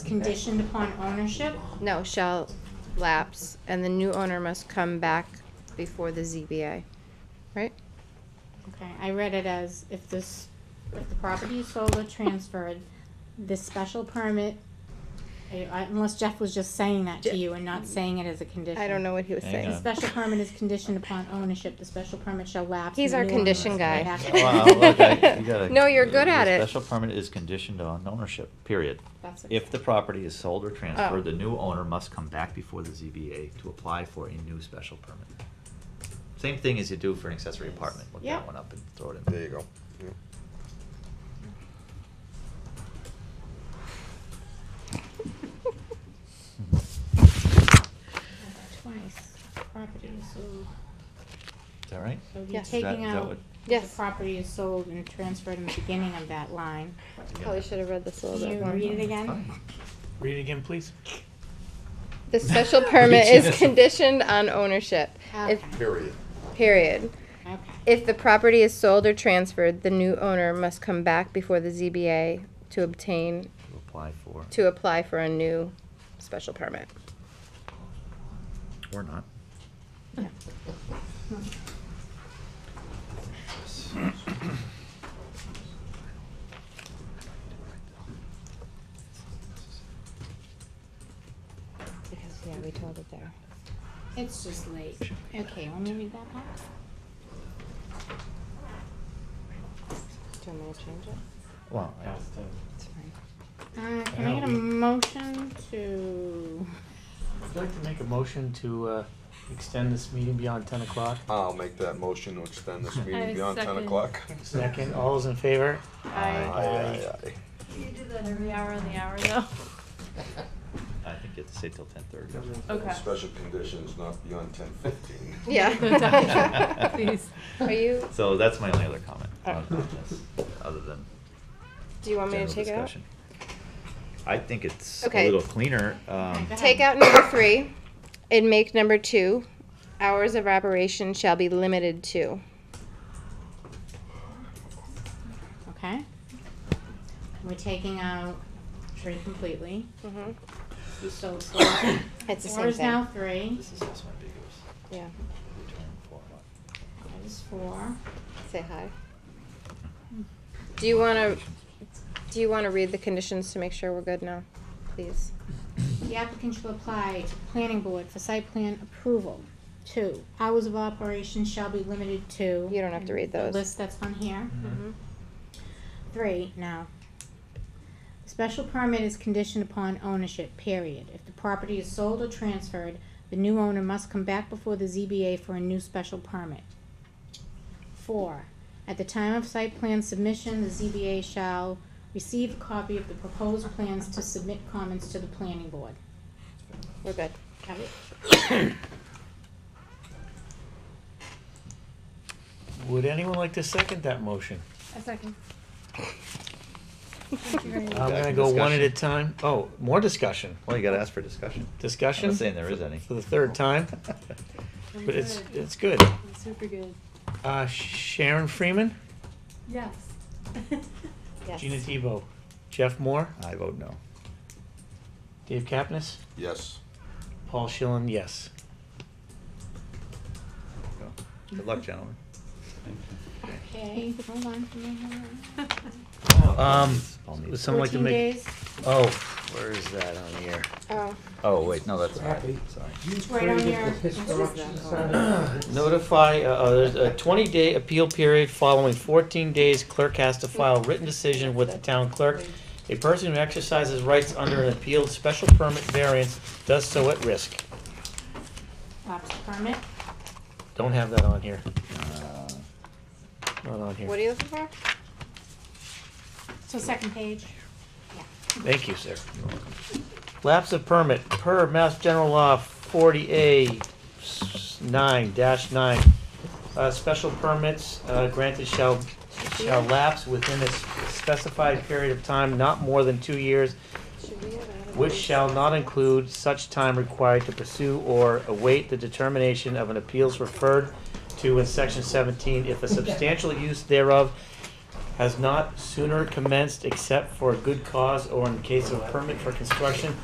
conditioned upon ownership? No, shall lapse, and the new owner must come back before the ZBA, right? Okay, I read it as if this, if the property is sold or transferred, this special permit, I- I- unless Jeff was just saying that to you and not saying it as a condition. I don't know what he was Hang saying. The special permit is conditioned uption upon ownership, the special permit shall lapse. He's and our the new condition owners guy. may have- Oh, Wow, okay, you gotta- No, you're good the at it. Special permit is conditioned on ownership, period. That's it. If the property is sold or Oh. transferred, the new owner must come back before the ZBA to apply for a new special permit. Same thing as you do for an accessory apartment, look Yeah. that one up and throw it in. There you go. Yeah. Twice, property is sold, Is that right? so Yeah. you're Is that- taking is that out, what- the Yes. property is sold and transferred in the beginning of that line. Probably should have read this a little You bit more. read it again? Fine. Read it again, please. The special permit is Jesus. conditioned on ownership, if, Ah, Okay, Period. period. okay. If the property is sold or transferred, the new owner must come back before the ZBA to obtain, To apply for, to apply for a new special permit. or not. Hmm. Because, yeah, we told it there. It's just late. Okay, let me read that back. Do you want me to change it? Well, I- It's fine. Uh, can I get a motion to, I'd like to make a motion to uh, extend this meeting beyond 10 o'clock. I'll make that motion to extend this I meeting beyond ten second. o'clock. Second, all those in favor? Aye, I, aye, aye. You do that every hour on the hour, though. I think you have to say till ten thirty. Okay. Special conditions not beyond ten fifteen. Yeah. Please. Are you, So that's my only other comment on on this, other than do you want me to general take it out? discussion. I think it's a Okay. little cleaner, um, Okay. Take out number three and make number two, hours of operation shall be limited to. okay? We're taking out three completely. Mhm. So four, It's the four same is now thing, three, this is also ambiguous. yeah. Return for what? that is four. Say hi. Do you wanna, do you wanna read the conditions to make sure we're good now, please? The applicant shall apply to planning board for site plan approval. Two, hours of operation shall be limited to. You don't have to read the those. List that's on here. Mm-hmm. Mhm. Three, no. Special permit is conditioned upon ownership, period. If the property is sold or transferred, the new owner must come back before the ZBA for a new special permit. Four, at the time of site plan submission, the ZBA shall receive a copy of the proposed plans to submit comments to the planning board. We're good. Got it? Would anyone like to second that motion? A second. I'm Back gonna in go one at discussion. a time. Oh, more discussion. Well, you gotta ask for discussion. I'm Discussion? not saying there is any. For the third time, but it's, it's good. Super good. Uh, Sharon Freeman, Yes. Yes. Gina Tebow, Jeff Moore, I vote no. Dave Kapnis, Yes. Paul Schillen, yes. Go. Good luck, gentlemen. Okay, hold on, hold on, hold on. Um, Paul would needs- someone like to Fourteen make? days, Oh, where is that on here? Oh, Oh, wait, no, that's not, Happy. sorry. it's right on your. Notify, uh, uh, there's a twenty day appeal period following fourteen days clerk has to file written decision with the town clerk. A person who exercises rights under an appealed special permit variance does so at risk. Lapse permit. Don't have that on here, Uh, not on here. what are you looking for? So second page. Thank you, sir. Lapse of permit per Mass General Law forty A nine dash nine. Uh, special permits, uh, granted shall, shall lapse within a specified period of time, not more than two years, Should we have added which these? shall not include such time required to pursue or await the determination of an appeals referred to in section seventeen if a substantial use thereof has not sooner commenced except for a good cause or in case of permit for construction